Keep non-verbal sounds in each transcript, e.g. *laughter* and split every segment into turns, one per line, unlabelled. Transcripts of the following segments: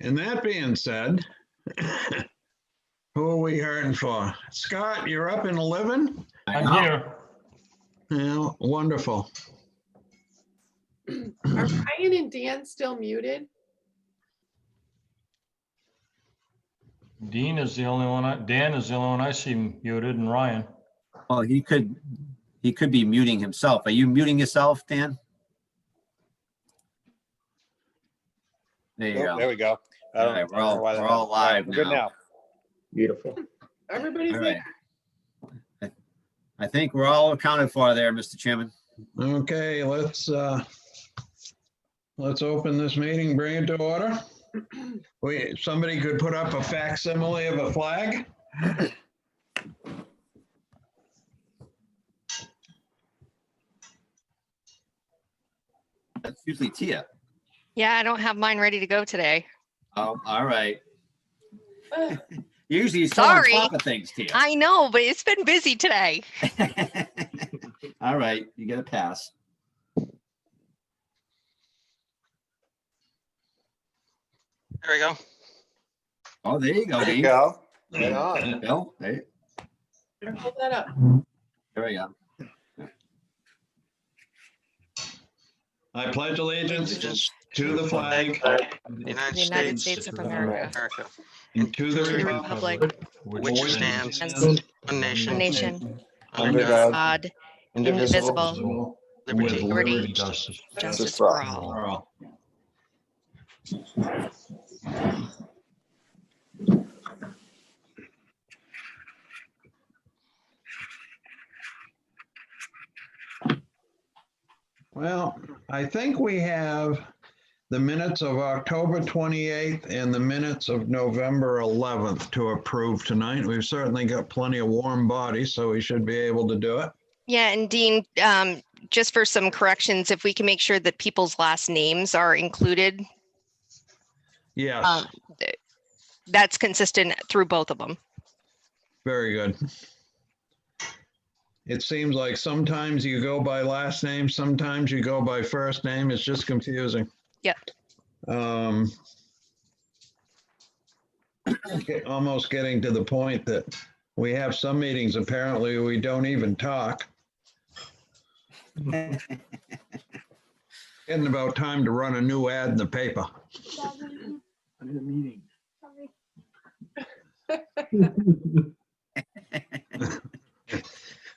And that being said, who are we hearing for? Scott, you're up in 11?
I'm here.
Yeah, wonderful.
Are
Mm-hmm.
Ryan and Dan still muted?
Dean is the only one, I Dan is the only one I see muted and Ryan.
Well, he could, he could be muting himself. Are you muting yourself, Dan? There you
Oh, There
go.
we go. I
All
don't-
right,
I
we're
don't
all-
know why that
we're all
happened. All right,
live
we're good
now.
Beautiful.
Everybody's
All
like,
right. I- I think we're all accounted for there, Mr. Chairman.
Okay, let's, uh, let's open this meeting, bring it to order. We, somebody could put up a facsimile of a flag?
That's usually Tia.
Yeah, I don't have mine ready to go today.
Oh, all *laughs* right.
"Ugh,
Usually you're so on
Sorry.
top of things, Tia.
I know, but it's been busy today.
*laughs* All right, you get a pass.
There we go.
Oh, there you go,
There you
Dean.
go. Right on.
Bill, hey,
Hold that up.
there we go.
I pledge allegiance to the flag
United
The United States of America,
America,
and to the
to the
republic
republic,
which stands
stands
one
a
nation,
nation,
under
Under God,
God,
odd,
indivisible,
indivisible,
with
liberty.
liberty,
liberty justice
justice for all.
for all. Well, I think we have the minutes of October 28th and the minutes of November 11th to approve tonight. We've certainly got plenty of warm bodies, so we should be able to do it.
Yeah, and Dean, um, just for some corrections, if we can make sure that people's last names are included,
Yes,
um, th- that's consistent through both of them.
very good. It seems like sometimes you go by last name, sometimes you go by first name. It's just confusing.
Yep.
Um, get- Almost getting to the point that we have some meetings, apparently we don't even talk. Getting about time to run a new ad in the paper. *laughs*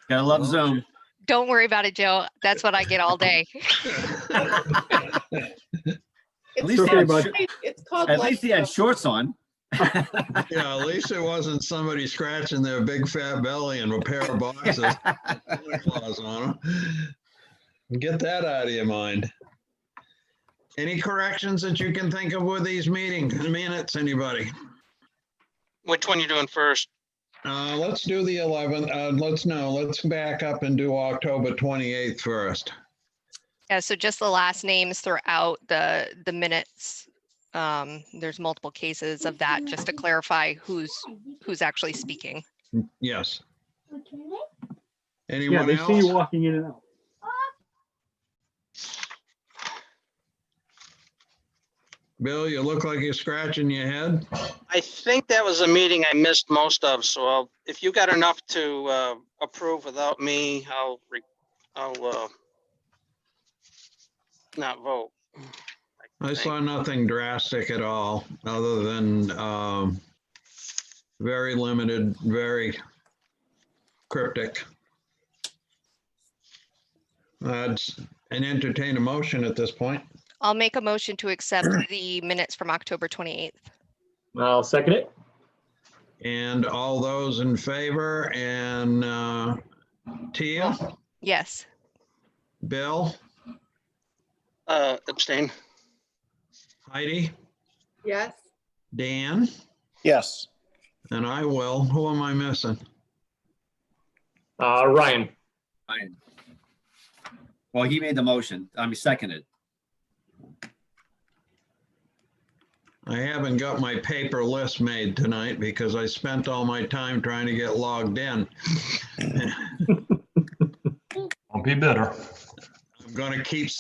Gotta love Zoom.
Don't worry about it, Joe. That's what I get all day.
It's
least
called
they had
light- It's called.
At
light
least he had
show.
shorts on.
Yeah, at least it wasn't somebody scratching their big fat belly and a pair of boxes. with Santa Claus on 'em. Get that out of your mind. Any corrections that you can think of with these meetings, minutes, anybody?
Which one you doing first?
Uh, let's do the 11th, uh, let's no, let's back up and do October 28th first.
Yeah, so just the last names throughout the, the minutes. Um, there's multiple cases of that, just to clarify who's, who's actually speaking.
Yes.
Yeah,
Anyone
they see you
else?
walking in and out.
Bill, you look like you're scratching your head.
I think that was a meeting I missed most of, so I'll- if you got enough to uh, approve without me, I'll, re- I'll uh, not vote.
I saw nothing drastic at all, other than um, very limited, very cryptic. Uh, it's- And entertain a motion at this point.
I'll make a motion to accept the minutes from October 28th.
I'll second it.
And all those in favor and uh, Tia,
Yes,
Bill,
Uh, Abstain.
Heidi,
Yes,
Dan,
yes.
and I will. Who am I missing?
Uh, Ryan.
Fine. Well, he made the motion. I mean, seconded.
I haven't got my paper list made tonight because I spent all my time trying to get logged in.
Don't be bitter.
I'm gonna keep